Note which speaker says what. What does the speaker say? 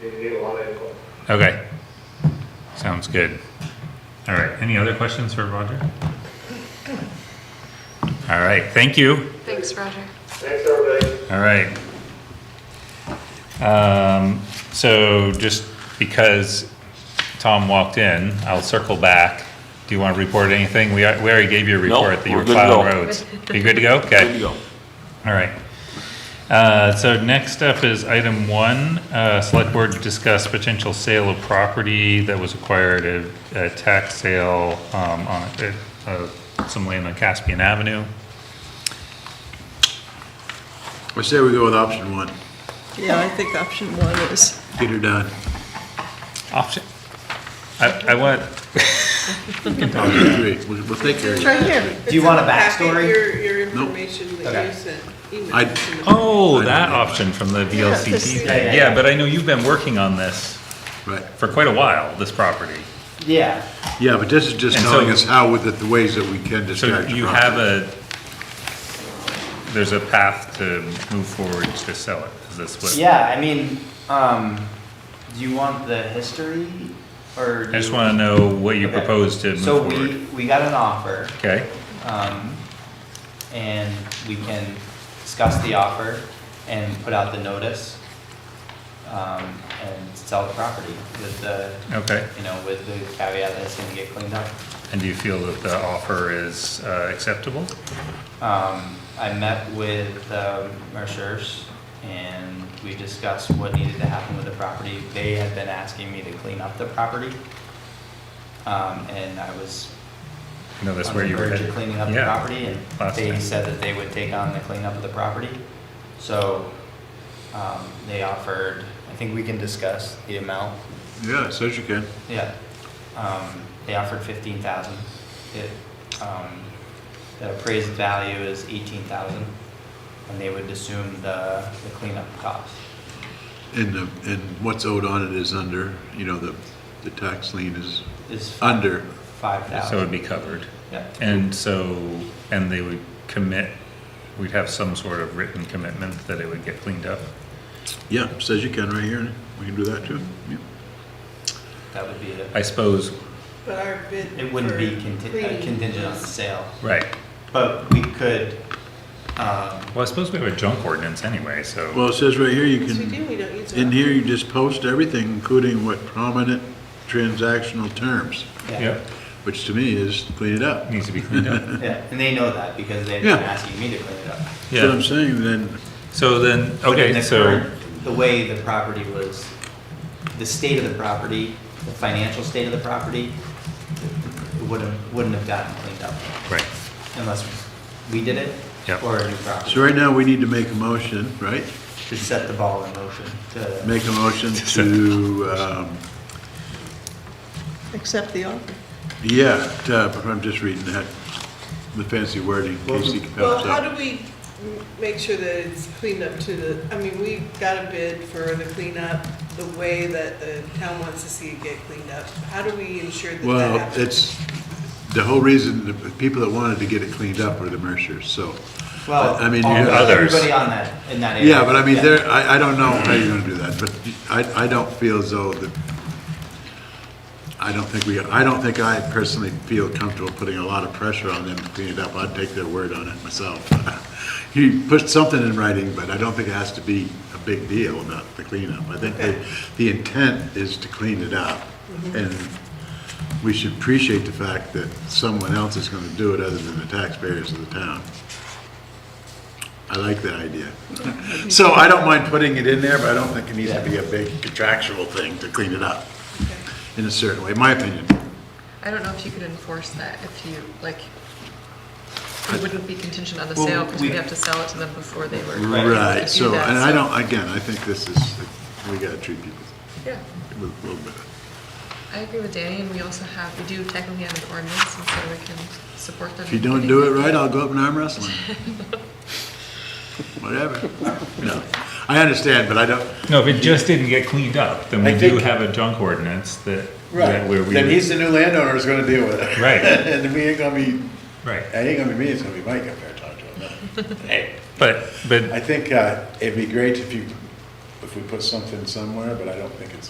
Speaker 1: They need a lot of input.
Speaker 2: Okay. Sounds good. All right, any other questions for Roger? All right, thank you.
Speaker 3: Thanks, Roger.
Speaker 1: Thanks, everybody.
Speaker 2: All right. Um, so just because Tom walked in, I'll circle back. Do you want to report anything? We, are- we already gave you a
Speaker 4: No,
Speaker 2: report that you
Speaker 4: we're
Speaker 2: were
Speaker 4: good to
Speaker 2: plowing
Speaker 4: go.
Speaker 2: roads. You good to go? Okay.
Speaker 4: Good to go.
Speaker 2: All right. Uh, So next up is item one, uh, select board discuss potential sale of property that was acquired at a tax sale um, on uh, uh, some land on Caspian Avenue.
Speaker 5: I say we go with option one,
Speaker 6: Yeah, I think option one is,
Speaker 5: get her done.
Speaker 2: Option, I I want,
Speaker 5: Option three, we'll we'll take care of
Speaker 6: it's
Speaker 5: it.
Speaker 6: right here.
Speaker 7: Do you want a
Speaker 8: Packet,
Speaker 7: backstory?
Speaker 8: Your, your
Speaker 5: Nope.
Speaker 8: information that
Speaker 7: Okay.
Speaker 8: you sent, email.
Speaker 5: I-
Speaker 2: oh, that option from the VLCT.
Speaker 6: this-
Speaker 2: thing. Yeah, but I know you've been working on this
Speaker 5: Right,
Speaker 2: for quite a while, this property.
Speaker 7: Yeah,
Speaker 5: yeah, but this is just
Speaker 2: And so-
Speaker 5: telling us how, with it, the ways that we can
Speaker 2: So
Speaker 5: discharge the
Speaker 2: you have
Speaker 5: property.
Speaker 2: a, there's a path to move forward to sell it, is this what?
Speaker 7: yeah, I mean, um, do you want the history or?
Speaker 2: I just want to know what you propose to move
Speaker 7: So
Speaker 2: forward.
Speaker 7: we, we got an offer,
Speaker 2: Okay,
Speaker 7: um, and we can discuss the offer and put out the notice, um, and sell the property with the,
Speaker 2: okay.
Speaker 7: you know, with the caveat that it's gonna get cleaned up.
Speaker 2: And do you feel that the offer is uh, acceptable?
Speaker 7: Um, I met with, um, Mercer's and we discussed what needed to happen with the property. They had been asking me to clean up the property. Um, and I was
Speaker 2: No, that's where you were
Speaker 7: on the verge of
Speaker 2: headed.
Speaker 7: cleaning up the
Speaker 2: Yeah.
Speaker 7: property and
Speaker 2: last
Speaker 7: they
Speaker 2: time.
Speaker 7: said that they would take on the cleanup of the property. So, um, they offered, I think we can discuss the amount,
Speaker 5: Yeah, it says you can.
Speaker 7: yeah. Um, they offered fifteen thousand. It, um, the appraised value is eighteen thousand and they would assume the, the cleanup cost.
Speaker 5: And the, and what's owed on it is under, you know, the, the tax lien is
Speaker 7: Is
Speaker 5: under,
Speaker 7: five
Speaker 2: So it'd
Speaker 7: thousand.
Speaker 2: be covered.
Speaker 7: Yeah,
Speaker 2: And so, and they would commit, we'd have some sort of written commitment that it would get cleaned up.
Speaker 5: yeah, it says you can right here, we can do that too. Yeah.
Speaker 7: that would be it.
Speaker 2: I suppose,
Speaker 8: But our bid.
Speaker 7: It wouldn't be
Speaker 8: for
Speaker 7: contingent,
Speaker 8: cleaning
Speaker 7: contingent on the
Speaker 8: was-
Speaker 7: sale.
Speaker 2: right.
Speaker 7: But we could, um,
Speaker 2: Well, I suppose we have a junk ordinance anyway, so,
Speaker 5: Well, it says right here, you
Speaker 8: Yes, we do,
Speaker 5: can,
Speaker 8: we don't use. it.
Speaker 5: in here, you just post everything, including what prominent transactional terms,
Speaker 7: yeah,
Speaker 2: yep,
Speaker 5: which to me is clean it up.
Speaker 2: needs to be cleaned up.
Speaker 7: yeah, and they know that because they've
Speaker 5: Yeah.
Speaker 7: been asking me to clean it up.
Speaker 5: That's what
Speaker 2: Yeah,
Speaker 5: I'm saying, then,
Speaker 2: so then,
Speaker 7: But in
Speaker 2: okay,
Speaker 7: the
Speaker 2: so,
Speaker 7: current- The way the property was, the state of the property, the financial state of the property, it wouldn't, wouldn't have gotten cleaned up
Speaker 2: right,
Speaker 7: unless we did it
Speaker 2: Yep.
Speaker 7: or a new
Speaker 5: so
Speaker 7: property.
Speaker 5: right now, we need to make a motion, right?
Speaker 7: To set the ball in motion to,
Speaker 5: Make a motion to, um,
Speaker 6: Accept the offer.
Speaker 5: yeah, to- I'm just reading that, the fancy wording, Casey
Speaker 8: Well,
Speaker 5: pops
Speaker 8: how
Speaker 5: up.
Speaker 8: do we m- make sure that it's cleaned up to the, I mean, we got a bid for the cleanup, the way that the town wants to see it get cleaned up. How do we ensure that that
Speaker 5: Well,
Speaker 8: happens?
Speaker 5: it's, the whole reason, the people that wanted to get it cleaned up were the Mercers, so.
Speaker 7: well,
Speaker 5: I mean,
Speaker 7: all-
Speaker 5: you-
Speaker 2: others.
Speaker 7: everybody on that, in that area.
Speaker 5: Yeah, but I mean, there, I, I don't know how you're gonna do that, but I, I don't feel as though that, I don't think we, I don't think I personally feel comfortable putting a lot of pressure on them to clean it up. I'd take their word on it myself. You put something in writing, but I don't think it has to be a big deal, not the cleanup. I think the, the intent is to clean it up. And we should appreciate the fact that someone else is gonna do it other than the taxpayers of the town. I like that idea. So I don't mind putting it in there, but I don't think it needs to be a big contractual thing to clean it up in a certain way, my opinion.
Speaker 3: I don't know if you could enforce that if you, like, it wouldn't be contingent on the
Speaker 7: Well,
Speaker 3: sale because
Speaker 7: we-
Speaker 3: we'd have to sell it to them before they were.
Speaker 7: Right.
Speaker 5: Right,
Speaker 3: Do
Speaker 5: so,
Speaker 3: that,
Speaker 5: and I
Speaker 3: so-
Speaker 5: don't, again, I think this is, we gotta treat people
Speaker 3: Yeah,
Speaker 5: with a little bit. of-
Speaker 3: I agree with Danny, and we also have, we do technically have an ordinance, and so we can support them.
Speaker 5: If you don't do it right, I'll go up and arm wrestle you. Whatever. No, I understand, but I don't.
Speaker 2: no, if it just didn't get cleaned up, then
Speaker 5: I
Speaker 2: we do
Speaker 5: think-
Speaker 2: have a junk ordinance that, that where we. would-
Speaker 5: the new landowner who's gonna deal with it.
Speaker 2: Right.
Speaker 5: And we ain't gonna be,
Speaker 2: Right,
Speaker 5: ain't gonna be me, it's gonna be Mike up there talking to him. Hey.
Speaker 2: but, but
Speaker 5: I think uh, it'd be great if you, if we put something somewhere, but I don't think it's